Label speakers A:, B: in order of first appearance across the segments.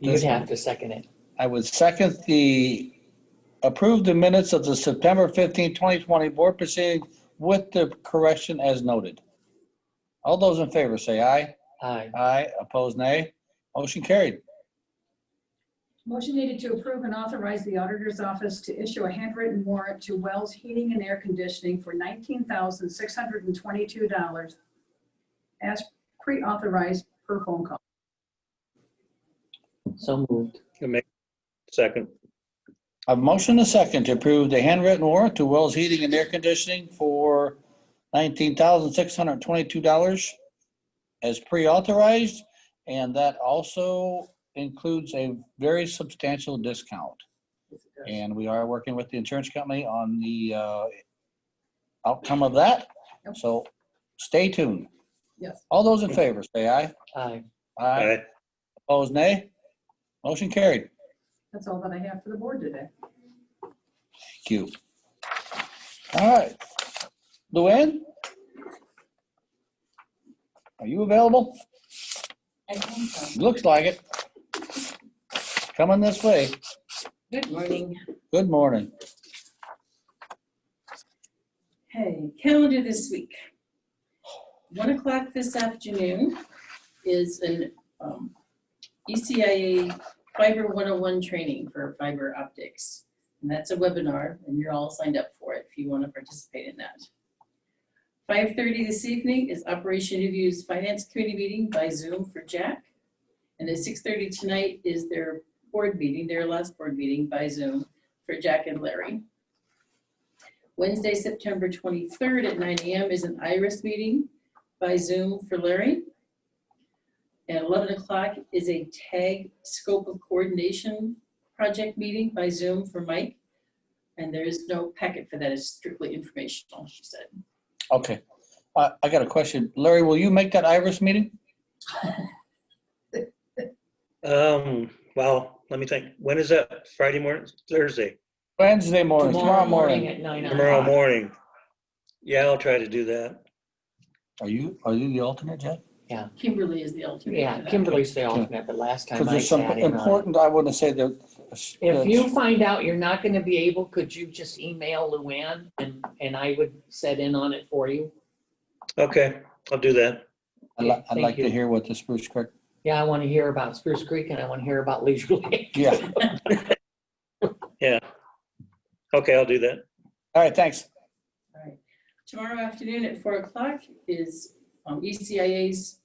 A: You'd have to second it.
B: I would second the, approve the minutes of the September 15, 2020 board proceeding with the correction as noted. All those in favor say aye.
A: Aye.
B: Aye, opposed nay. Motion carried.
C: Motion needed to approve and authorize the auditor's office to issue a handwritten warrant to Wells Heating and Air Conditioning for $19,622 as pre-authorized per phone call.
A: So moved.
D: Second,
B: A motion and a second to approve the handwritten warrant to Wells Heating and Air Conditioning for $19,622 as pre-authorized, and that also includes a very substantial discount. And we are working with the insurance company on the uh, outcome of that.
C: Yep.
B: So stay tuned.
C: Yes.
B: All those in favor, say aye.
A: Aye.
B: Aye.
D: aye.
B: Opposed, nay. Motion carried.
C: That's all that I have for the board today.
B: Thank you. All right. Luann? Are you available?
E: I think so.
B: Looks like it. Coming this way.
E: Good morning.
B: Good morning.
E: Hey, calendar this week. One o'clock this afternoon is an um, ECIA Fiber 101 training for fiber optics. And that's a webinar, and you're all signed up for it if you want to participate in that. 5:30 this evening is Operation Review's Finance Committee meeting by Zoom for Jack. And at 6:30 tonight is their board meeting, their last board meeting by Zoom for Jack and Larry. Wednesday, September 23rd at 9 AM is an IRIS meeting by Zoom for Larry. At 11 o'clock is a TAG Scope of Coordination Project meeting by Zoom for Mike. And there is no packet for that, it's strictly informational, she said.
B: Okay. I, I got a question. Larry, will you make that Iris meeting?
D: Um, well, let me think. When is that? Friday morning, Thursday,
B: Wednesday morning, tomorrow morning.
A: at nine
D: tomorrow
A: o'clock.
D: morning? Yeah, I'll try to do that.
B: Are you, are you the alternate, Jeff?
E: Kimberly is the alternate.
A: Yeah,
E: for that.
A: Kimberly's the alternate, but last time
B: Because
A: I
B: there's some
A: sat in on it.
B: important, I wouldn't say that.
A: If you find out you're not gonna be able, could you just email Luann and, and I would set in on it for you?
D: Okay, I'll do that.
B: I'd li- I'd like
A: Thank
B: to
A: you.
B: hear what the Spruce Creek,
A: Yeah, I wanna hear about Spruce Creek and I wanna hear about Leisure Lake.
B: yeah.
D: Yeah. Okay, I'll do that.
B: All right, thanks.
E: All right. Tomorrow afternoon at four o'clock is um, ECIA's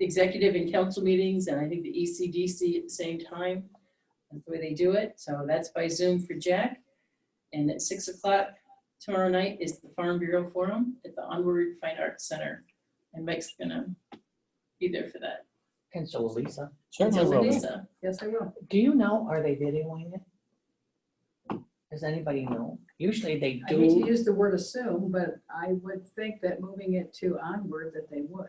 E: executive and council meetings, and I think the E ECDC at the same time. That's the way they do it, so that's by Zoom for Jack. And at six o'clock tomorrow night is the Farm Bureau Forum at the Onward Fine Arts Center. And Mike's gonna be there for that.
A: And so Lisa,
B: Certainly
E: So
B: will be.
E: Lisa,
C: Yes, I will.
A: do you know, are they videoing it? Does anybody know? Usually they
C: I hate to
A: do.
C: use the word assume, but I would think that moving it to onward that they would.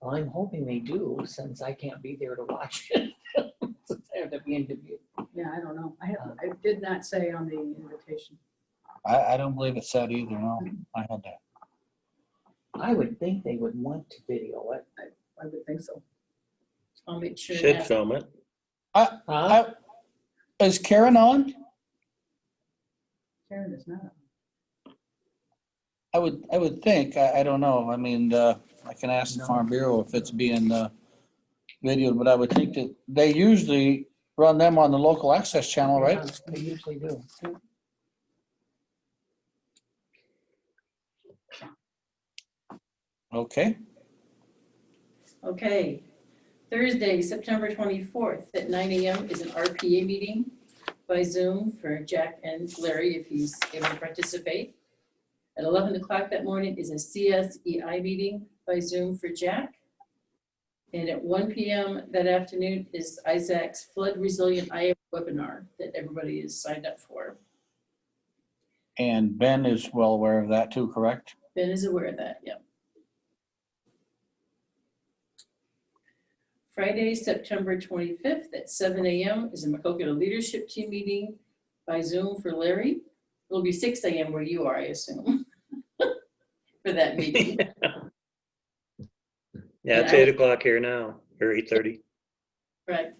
A: Well, I'm hoping they do since I can't be there to watch it. Since I have to be in Dubuque.
C: Yeah, I don't know. I have, I did not say on the invitation.
B: I, I don't believe it said either, no. I had that.
A: I would think they would want to video it.
C: I would think so.
E: I'll make sure
D: Should
E: that,
D: film it.
A: Huh?
B: Is Karen on?
C: Karen is not.
B: I would, I would think, I, I don't know. I mean, uh, I can ask the Farm Bureau if it's being, uh, videoed, but I would think that they usually run them on the local access channel, right?
A: Yeah, They usually do.
B: Okay,
E: okay. Thursday, September twenty-fourth at nine AM is an RPA meeting by Zoom for Jack and Larry if he's able to participate. At 11 o'clock that morning is a CSEI meeting by Zoom for Jack. And at 1 PM that afternoon is Isaac's Flood Resilient IA webinar that everybody is signed up for.
B: and Ben is well aware of that too, correct?
E: Ben is aware of that, yep. Friday, September 25th at 7 AM is a Macokota Leadership Team meeting by Zoom for Larry. It'll be 6 AM where you are, I assume, for that meeting.
D: Yeah, it's
E: Yeah.
D: eight o'clock here now, or eight thirty.
E: Right.